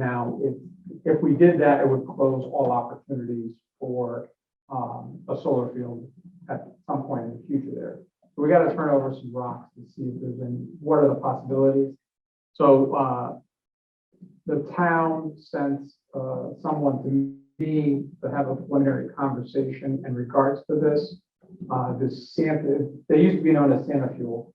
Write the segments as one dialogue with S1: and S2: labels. S1: now, if, if we did that, it would close all opportunities for, um, a solar field at some point in the future there. So we gotta turn over some rocks and see if there's any, what are the possibilities? So, uh, the town sent, uh, someone to me to have a preliminary conversation in regards to this. Uh, this Santa, they used to be known as Santa Fuel.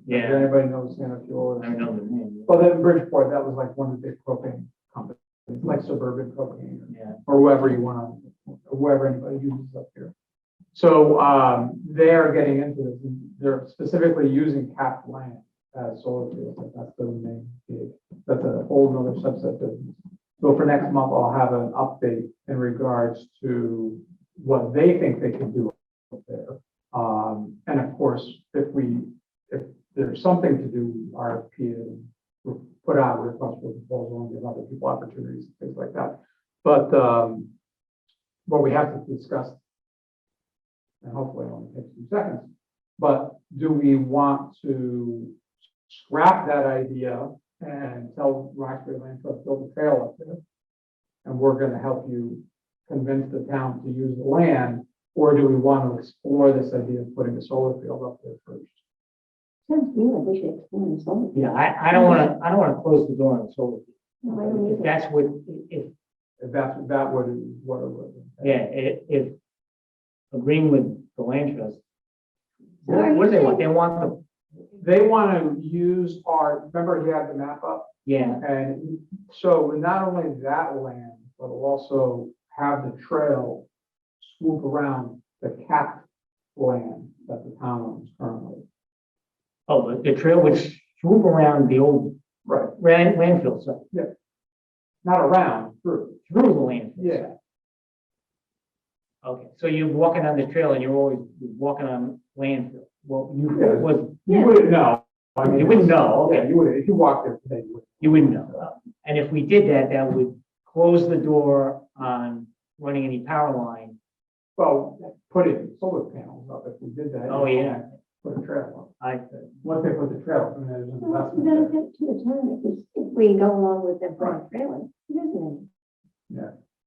S1: Does
S2: Yeah,
S1: Anybody knows Santa Fuel?
S2: I know the name.
S1: Well, then Bridgeport, that was like one of the big propane companies, like suburban propane
S2: Yeah,
S1: or whoever you want to, whoever anybody uses up here. So um, they are getting into this, they're specifically using cap land as solar fields, like that's the main gig. That's a whole nother subset business. So for next month, I'll have an update in regards to what they think they can do up there. Um, and of course, if we, if there's something to do, RFP and we'll put out a request for proposal and give other people opportunities, things like that. But, um, what we have to discuss, and hopefully it only takes two seconds, but do we want to scrap that idea and tell Roxbury Land Trust, build a trail up there? And we're gonna help you convince the town to use the land, or do we want to explore this idea of putting a solar field up there first?
S3: Sounds to me like we should explore this one.
S2: yeah, I, I don't wanna, I don't wanna close the door on solar.
S3: No, I don't
S2: If
S3: either.
S2: that's what, if,
S1: If that's, that would, what it would.
S2: yeah, if, if agreeing with the land trust.
S3: So are
S2: What what do they
S3: you
S2: want? They want the,
S1: They wanna use our, remember he had the map up?
S2: yeah,
S1: And so not only that land, but we'll also have the trail swoop around the cap land that the town owns currently.
S2: oh, the the trail would swoop around the old
S1: Right.
S2: ran- landfill site,
S1: Not around, through.
S2: through the landfill.
S1: Yeah.
S2: site. Okay, so you're walking on the trail and you're always walking on landfill. Well, you
S1: Yeah.
S2: was,
S1: You
S3: Yeah.
S1: wouldn't know. I mean,
S2: you wouldn't know, okay.
S1: Yeah, you would, if you walked there today, you would.
S2: You wouldn't know. And if we did that, that would close the door on running any power line.
S1: Well, put in solar panels up if we did that.
S2: Oh, yeah.
S1: Put a trail
S2: I,
S1: up. Once they put the trail, then there's an
S3: Well,
S1: investment.
S3: we gotta
S1: there.
S3: get to the town if we, if we go along with the broad trailer, it isn't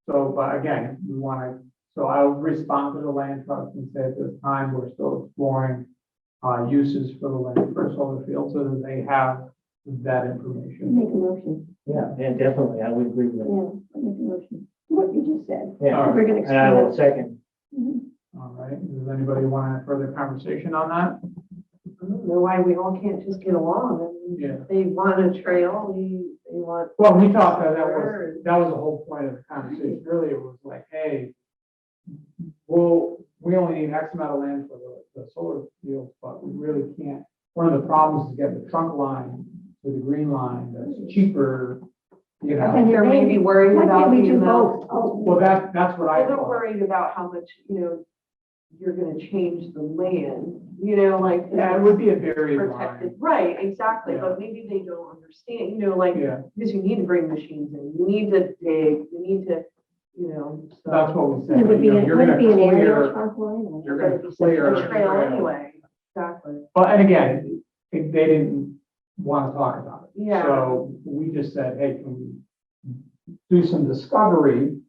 S1: So, but again, we want to, so I'll respond to the land trust and say at this time, we're still exploring uh, uses for the land for solar fields so that they have that
S3: it?
S1: information.
S3: Make a motion,
S2: yeah, yeah, definitely, I would agree with that.
S3: yeah, I'll make a motion, what you just said.
S2: Yeah,
S3: We're gonna
S2: and I
S3: explore.
S2: will second.
S3: Mhm.
S1: All right, does anybody want a further conversation on that?
S4: I
S3: Mm-hmm.
S4: don't know why we all can't just get along. I mean,
S1: Yeah.
S4: They want a trail, we, they want.
S1: Well, we talked that that was, that was the whole point of the conversation earlier was like, hey, well, we only need X amount of land for the, the solar field, but we really can't. One of the problems is getting the trunk line to the green line that's cheaper, you know.
S4: And they're maybe worried
S3: Why
S4: about
S3: can't we
S4: the
S3: do
S4: amount.
S3: both? Oh,
S1: Well, that, that's what I
S4: Well, They're
S1: thought.
S4: worried about how much, you know, you're gonna change the land, you know, like.
S1: Yeah, it would be a very
S4: Protected,
S1: line.
S4: right, exactly,
S1: Yeah.
S4: but maybe they don't understand, you know, like,
S1: Yeah,
S4: because you need to bring machines in, you need to dig, you need to, you know, so.
S1: that's what we said.
S3: It would be,
S1: you know,
S3: an-
S1: you're
S3: would
S1: gonna
S3: it be an
S1: clear-
S3: area trunk line. or
S1: you're gonna
S3: would it be
S1: clear-
S3: separate?
S4: A trail anyway, exactly.
S1: Well, and again, it- they didn't want to talk about it.
S4: Yeah.
S1: So we just said, hey, can we do some discovery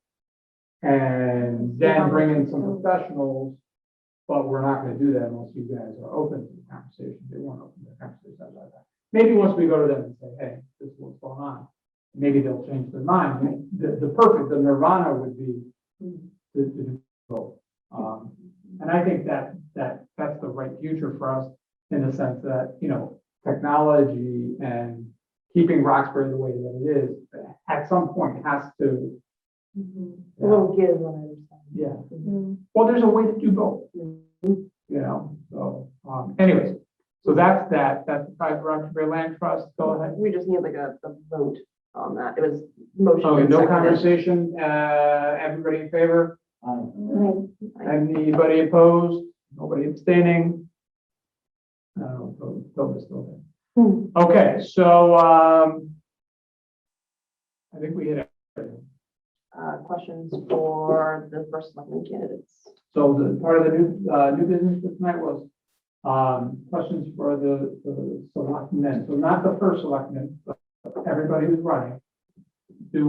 S1: and then bring in some professionals? But we're not going to do that unless you guys are open to the conversation. They weren't open to the conversation. I like that. Maybe once we go to them and say, hey, this is what's going on, maybe they'll change their mind. The, the perfect, the nirvana would be to, to do both. Um, and I think that, that, that's the right future for us in the sense that, you know, technology and keeping Roxbury the way that it is, at some point has to.
S4: We'll get one
S1: Yeah,
S4: at a time.
S3: Mm.
S1: well, there's a way to do both, you know, so, um, anyways. So that's that, that's the Pride Roxbury Land Trust, go ahead.
S4: We just need like a, a vote on that. It was motion.
S1: Okay,
S4: and
S1: no
S4: seconded.
S1: conversation, uh, everybody in favor?
S2: Um,
S3: Right.
S1: Anybody opposed? Nobody abstaining? No, Bill- Bill is still
S3: Hmm.
S1: there. Okay, so, um, I think we hit everything.
S4: Uh, questions for the first selectman candidates?
S1: So the part of the new, uh, new business for tonight was, um, questions for the, the selectmen. So not the first selectmen, but everybody who's running.